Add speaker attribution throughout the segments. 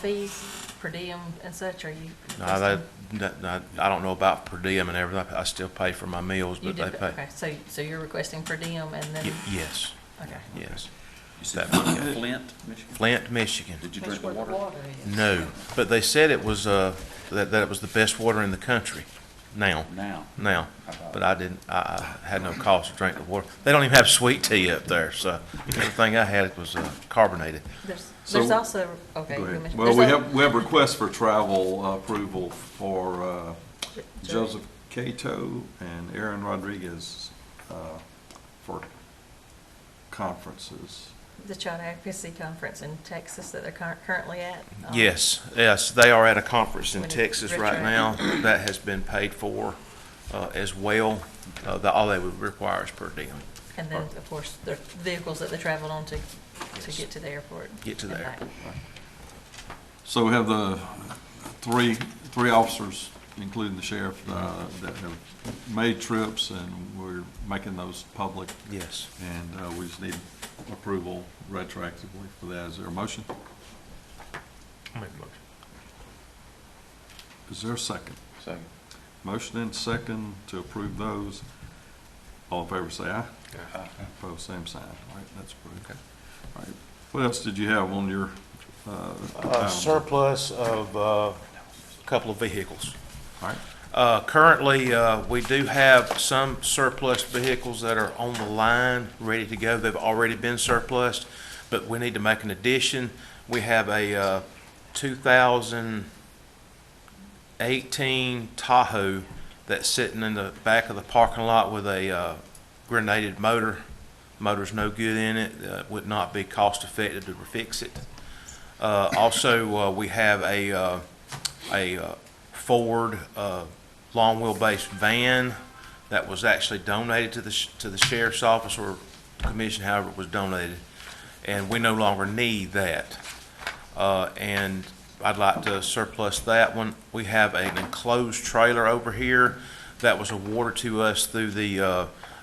Speaker 1: fees, per diem and such, are you?
Speaker 2: No, that, that, that- I don't know about per diem and everything, I still pay for my meals,
Speaker 1: You
Speaker 2: but they
Speaker 1: did,
Speaker 2: pay.
Speaker 1: okay, so, so you're requesting per diem and then,
Speaker 2: Ye- Yes,
Speaker 1: okay.
Speaker 2: yes.
Speaker 3: You said
Speaker 2: That would-
Speaker 3: Flint, Michigan?
Speaker 2: Flint, Michigan.
Speaker 3: Did you
Speaker 4: That's
Speaker 3: drink the
Speaker 4: where
Speaker 3: water?
Speaker 4: is.
Speaker 2: No, but they said it was, uh, that, that it was the best water in the country now,
Speaker 3: Now.
Speaker 2: now. But I didn't, I, I had no cause to drink the water. They don't even have sweet tea up there, so everything I had was uh, carbonated.
Speaker 1: There's,
Speaker 5: So-
Speaker 1: there's also, okay.
Speaker 5: Go
Speaker 1: you
Speaker 5: ahead.
Speaker 1: mentioned-
Speaker 5: Well, we
Speaker 1: there's al-
Speaker 5: have, we have requests for travel uh, approval for uh, Joseph Cato and Aaron Rodriguez uh, for conferences.
Speaker 1: The Child Advocacy Conference in Texas that they're cur- currently at. um,
Speaker 2: Yes, yes, they are at a conference in
Speaker 1: When it-
Speaker 2: Texas right
Speaker 1: retract-
Speaker 2: now that has been paid for, uh, as well. Uh, the, all they would require is per diem.
Speaker 1: And then, of course, their vehicles that they traveled on to, to
Speaker 2: Yes.
Speaker 1: get to the airport.
Speaker 2: Get to the
Speaker 1: and back.
Speaker 2: airport.
Speaker 5: So we have the three, three officers, including the sheriff, uh, that have made trips, and we're making those public,
Speaker 2: Yes.
Speaker 5: and uh, we just need approval retroactively for that. Is there a motion? Is there a second?
Speaker 3: Second.
Speaker 5: Motion and second to approve those. All in favor, say aye. Opposed, same sign. All right, that's approved.
Speaker 2: Okay.
Speaker 5: All right, what else did you have on your, uh?
Speaker 2: Uh,
Speaker 5: item?
Speaker 2: surplus of, uh, a couple of vehicles.
Speaker 5: All right,
Speaker 2: Uh, Currently, uh, we do have some surplus vehicles that are on the line, ready to go. They've already been surplus, but we need to make an addition. We have a uh, 2018 Tahoe that's sitting in the back of the parking lot with a uh, grenaded motor. Motor's no good in it, uh, would not be cost effective to fix it. Uh, Also, uh, we have a, uh, a uh, Ford uh, long wheelbase van that was actually donated to the, sh- to the sheriff's office or commission, however it was donated. And we no longer need that. Uh, And I'd like to surplus that one. We have an enclosed trailer over here that was awarded to us through the uh,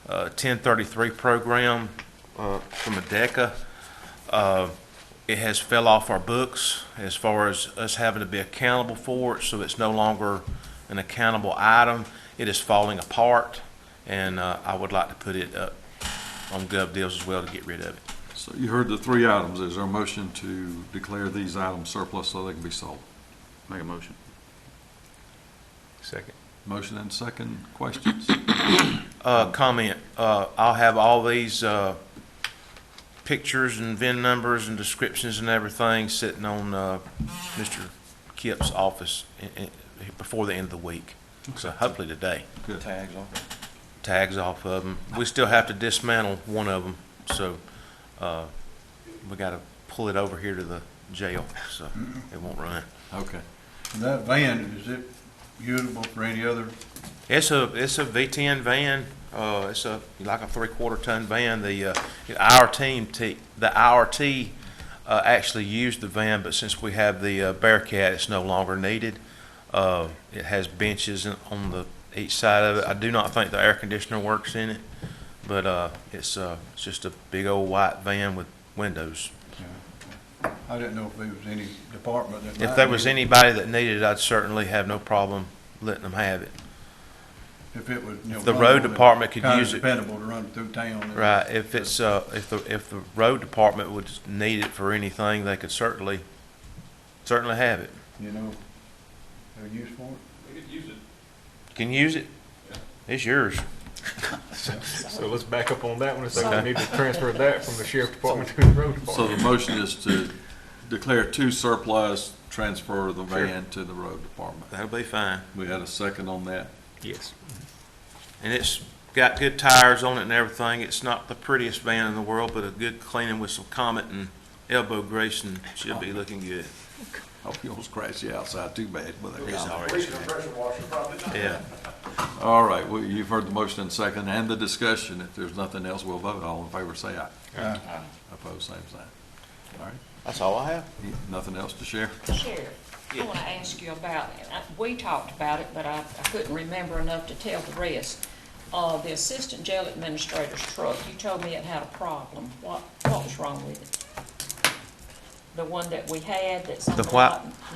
Speaker 2: uh, 1033 program uh, from ADECA uh, it has fell off our books as far as us having to be accountable for it, so it's no longer an accountable item. It is falling apart, and uh, I would like to put it up on Gov Deals as well to get rid of it.
Speaker 5: so you heard the three items. Is there a motion to declare these items surplus so they can be sold?
Speaker 3: Make a motion.
Speaker 2: Second.
Speaker 5: Motion and second, questions?
Speaker 2: Uh, comment, uh, I'll have all these, uh, pictures and VIN numbers and descriptions and everything sitting on, uh, Mr. Kip's office in, in, before the end of the week. So hopefully today.
Speaker 5: Good.
Speaker 3: Tags off.
Speaker 2: tags off of them. We still have to dismantle one of them, so, uh, we gotta pull it over here to the jail, so it won't run.
Speaker 5: Okay.
Speaker 6: That van, is it usable for any other?
Speaker 2: It's a, it's a V ten van, uh, it's a, like a three-quarter ton van, the, uh, our team, t- the IRT, uh, actually used the van, but since we have the uh, Bearcat, it's no longer needed. Uh, it has benches in- on the, each side of it, I do not think the air conditioner works in it, but, uh, it's, uh, it's just a big old white van with windows.
Speaker 6: I didn't know if there was any department that.
Speaker 2: If
Speaker 6: might
Speaker 2: there was
Speaker 6: use it.
Speaker 2: anybody that needed it, I'd certainly have no problem letting them have it.
Speaker 6: If it was. you know,
Speaker 2: the road
Speaker 6: runnable,
Speaker 2: department could
Speaker 6: kinda
Speaker 2: use it.
Speaker 6: Dependable to run through town. and-
Speaker 2: Right, if it's, uh, if the, if the road department would need it for anything, they could certainly, certainly have it.
Speaker 6: You know, they're used for it.
Speaker 2: Can you use it? It's yours.
Speaker 7: So let's back up on that one, so
Speaker 2: Okay.
Speaker 7: we need to transfer that from the sheriff department to the road
Speaker 5: So
Speaker 7: department.
Speaker 5: the motion is to declare two surplus, transfer the van to the road department.
Speaker 2: That'll be fine.
Speaker 5: We had a second on that.
Speaker 7: Yes.
Speaker 2: And it's got good tires on it and everything. It's not the prettiest van in the world, but a good cleaning with some Comet and elbow grease and should be looking good.
Speaker 5: Hope you don't scratch the outside too bad with that
Speaker 2: It's
Speaker 5: comment.
Speaker 2: already. Yeah.
Speaker 5: All right, well, you've heard the motion and second and the discussion. If there's nothing else, we'll vote. All in favor, say aye.
Speaker 6: Aye.
Speaker 5: Opposed, same sign. All right,
Speaker 2: That's all I have.
Speaker 5: nothing else to share?
Speaker 4: Sheriff, I want to ask you about, and I- we talked about it, but I I couldn't remember enough to tell the rest. Uh, The assistant jail administrator's truck, you told me it had a problem. What, what was wrong with it?
Speaker 2: the one that we had that's. on
Speaker 1: The white-
Speaker 2: lot